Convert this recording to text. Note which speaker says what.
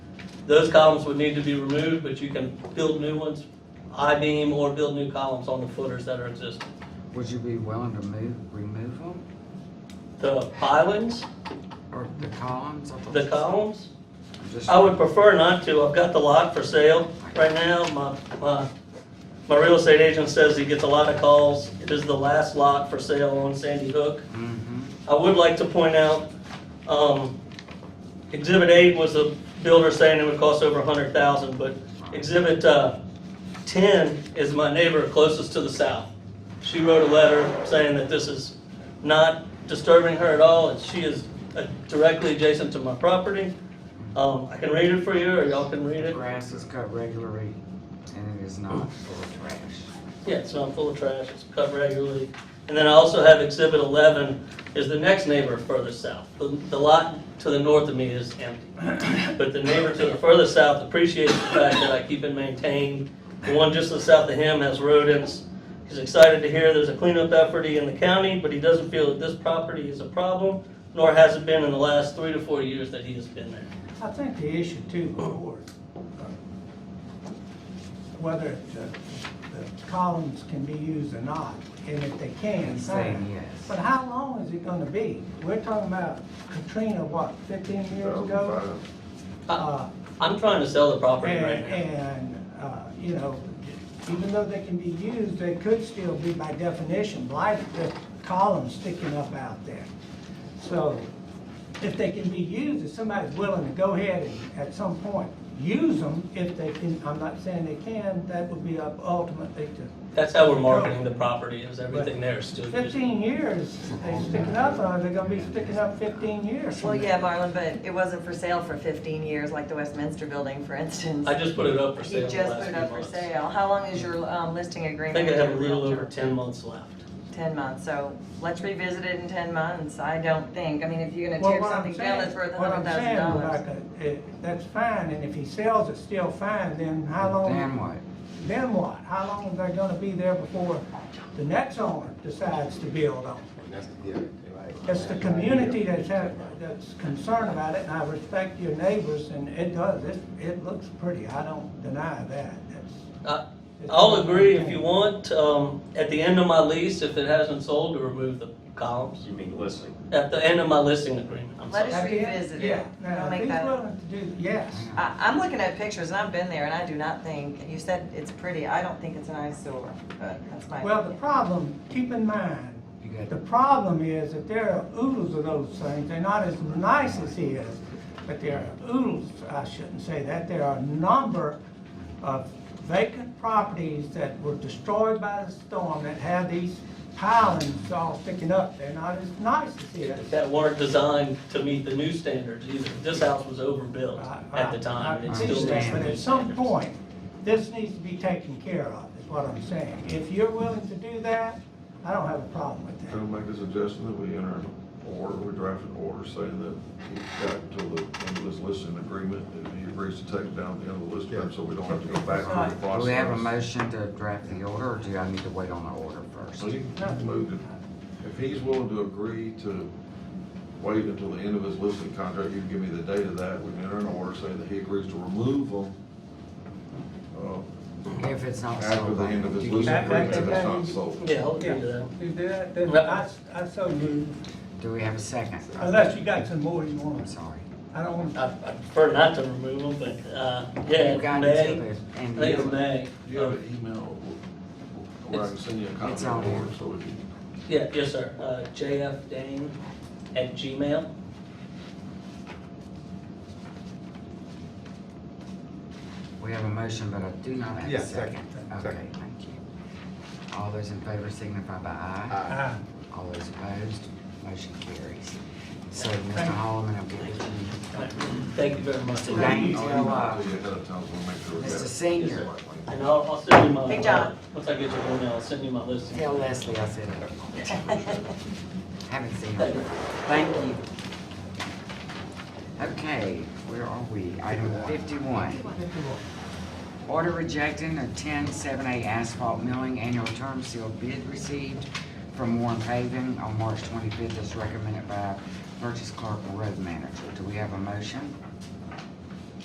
Speaker 1: Those columns would need to be removed, but you can build new ones, I-beam or build new columns on the footers that are existing.
Speaker 2: Would you be willing to move, remove them,
Speaker 1: The pilings,
Speaker 2: or the columns? I thought
Speaker 1: the
Speaker 2: you-
Speaker 1: columns,
Speaker 2: I'm just-
Speaker 1: I would prefer not to. I've got the lot for sale right now. My, my, my real estate agent says he gets a lot of calls. It is the last lot for sale on Sandy Hook.
Speaker 2: Mhm.
Speaker 1: I would like to point out, um, Exhibit eight was the builder saying it would cost over a hundred thousand, but Exhibit, uh, ten is my neighbor closest to the south. She wrote a letter saying that this is not disturbing her at all, and she is uh, directly adjacent to my property. Um, I can read it for you, or y'all can read it.
Speaker 2: Grass is cut regularly, and it is not full of trash.
Speaker 1: Yeah, it's not full of trash, it's cut regularly. And then I also have exhibit eleven is the next neighbor further south. The the lot to the north of me is empty. But the neighbor to the further south appreciates the fact that I keep it maintained. The one just to the south of him has rodents. He's excited to hear there's a cleanup effort in the county, but he doesn't feel that this property is a problem, nor has it been in the last three to four years that he has been there.
Speaker 3: I think the issue too, before, whether the, the columns can be used or not, and if they can,
Speaker 2: He's saying
Speaker 3: fine.
Speaker 2: yes.
Speaker 3: But how long is it gonna be? We're talking about Katrina, what, fifteen years ago? Uh,
Speaker 1: I- I'm trying to sell the property
Speaker 3: And,
Speaker 1: right now.
Speaker 3: and, uh, you know, even though they can be used, they could still be by definition blighted, the columns sticking up out there. So if they can be used, if somebody's willing to go ahead and at some point use them, if they can, I'm not saying they can, that would be up ultimately to.
Speaker 1: That's how we're marketing the property, is everything there is still used.
Speaker 3: Fifteen years, they sticking up, or they're gonna be sticking up fifteen years.
Speaker 4: Well, yeah, Marlon, but it wasn't for sale for 15 years, like the Westminster Building, for instance.
Speaker 1: I just put it up for
Speaker 4: You
Speaker 1: sale the
Speaker 4: just
Speaker 1: last
Speaker 4: put
Speaker 1: few
Speaker 4: it up for
Speaker 1: months. I
Speaker 4: sale. How long is your um, listing agreement?
Speaker 1: think I
Speaker 4: with
Speaker 1: have a
Speaker 4: your
Speaker 1: little
Speaker 4: realtor?
Speaker 1: over ten months left.
Speaker 4: 10 months, so let's revisit it in 10 months. I don't think, I mean, if you're going to
Speaker 3: Well,
Speaker 4: tear
Speaker 3: what I'm
Speaker 4: something
Speaker 3: saying-
Speaker 4: down that's worth
Speaker 3: what I'm saying,
Speaker 4: $100,000.
Speaker 3: Rebecca, it- That's fine, and if he sells it, still fine, then how
Speaker 2: Then
Speaker 3: long,
Speaker 2: what?
Speaker 3: then what? How long are they gonna be there before the next owner decides to build on? it? It's the community that's, had- that's concerned about it, and I respect your neighbors, and it does, it, it looks pretty, I don't deny that. It's-
Speaker 1: I-
Speaker 3: it's-
Speaker 1: Uh, I'll agree if you want, um, at the end of my lease, if it hasn't sold, to remove the columns.
Speaker 5: You mean listing?
Speaker 1: At the end of my listing agreement, I'm
Speaker 4: Let
Speaker 1: sorry.
Speaker 4: us-
Speaker 3: Have you-
Speaker 4: revisit it.
Speaker 3: Yeah, now,
Speaker 4: I'll
Speaker 3: if
Speaker 4: make
Speaker 3: he's
Speaker 4: that-
Speaker 3: willing to do, yes.
Speaker 4: I- I'm looking at pictures, and I've been there, and I do not think, you said it's pretty, I don't think it's an eyesore, but that's my
Speaker 3: Well, the
Speaker 4: opinion.
Speaker 3: problem, keep in mind,
Speaker 2: You got-
Speaker 3: the problem is that there are oodles of those things, they're not as nice as he is, but there are oodles, I shouldn't say that, there are a number of vacant properties that were destroyed by the storm that have these pilings all sticking up, they're not as nice as he is.
Speaker 1: That weren't designed to meet the new standards either. This house was overbuilt at the time.
Speaker 3: I- I-
Speaker 1: It
Speaker 3: I
Speaker 1: still meets
Speaker 3: understand,
Speaker 1: the
Speaker 3: But
Speaker 1: new
Speaker 3: at some
Speaker 1: standards.
Speaker 3: point, this needs to be taken care of, is what I'm saying. If you're willing to do that, I don't have a problem with that.
Speaker 6: I'll make a suggestion that we enter an order, we draft an order saying that we've got until the end of this listing agreement, if he agrees to take it down at the end of the listing, agreement, so we don't have to go back through the
Speaker 2: Do
Speaker 6: process.
Speaker 2: we have a motion to draft the order, or do I need to wait on the order
Speaker 6: So
Speaker 2: first?
Speaker 6: you can move it. If he's willing to agree to wait until the end of his listing contract, you can give me the date of that, we can enter an order saying that he agrees to remove them. uh,
Speaker 2: If it's not
Speaker 6: After
Speaker 2: sold,
Speaker 6: the end of his
Speaker 2: then-
Speaker 6: listing
Speaker 3: That- that-
Speaker 6: agreement, if it's
Speaker 3: that-
Speaker 6: not sold.
Speaker 1: Yeah, I'll agree to that.
Speaker 3: You do that, then
Speaker 1: Yep.
Speaker 3: I, I so move,
Speaker 2: do we have a second?
Speaker 3: unless you got some more you
Speaker 2: I'm
Speaker 3: want.
Speaker 2: sorry.
Speaker 3: I don't want,
Speaker 1: I I prefer not to remove them, but, uh,
Speaker 2: You
Speaker 1: yeah,
Speaker 2: got
Speaker 1: May.
Speaker 2: until the
Speaker 1: I
Speaker 2: end
Speaker 1: think
Speaker 2: of
Speaker 1: it's May.
Speaker 6: Do you have an email where I can send you a copy of
Speaker 2: It's- it's
Speaker 6: the
Speaker 2: on here.
Speaker 6: order, so we can.
Speaker 1: Um, Yeah, yes, sir. Uh, jfdane at gmail.
Speaker 2: We have a motion, but I do not have
Speaker 7: Yeah,
Speaker 2: a second.
Speaker 7: second,
Speaker 2: Okay,
Speaker 7: second.
Speaker 2: thank you. All those in favor signify by aye.
Speaker 3: I,
Speaker 2: All those opposed, motion carries. So, Mr.
Speaker 3: Thank you.
Speaker 2: Holloman, I'll get with you.
Speaker 1: Thank you very much.
Speaker 2: Mr. Dane,
Speaker 6: I'll
Speaker 2: will,
Speaker 6: email
Speaker 2: uh,
Speaker 6: it to you ahead of time, so we'll make sure we
Speaker 2: Mr.
Speaker 6: have it.
Speaker 2: Senior,
Speaker 1: And I'll, I'll send you my. uh,
Speaker 4: Hey, John.
Speaker 1: Once I get your email, I'll send you my list.
Speaker 2: tell Leslie I said hello. Haven't seen her. Thank you. Okay, where are we? Item fifty-one. Order rejecting a ten-seven-eight asphalt milling annual term seal bid received from Warren Paving on March twenty-fifth as recommended by Purchase Clerk and Road Manager. Do we have a motion?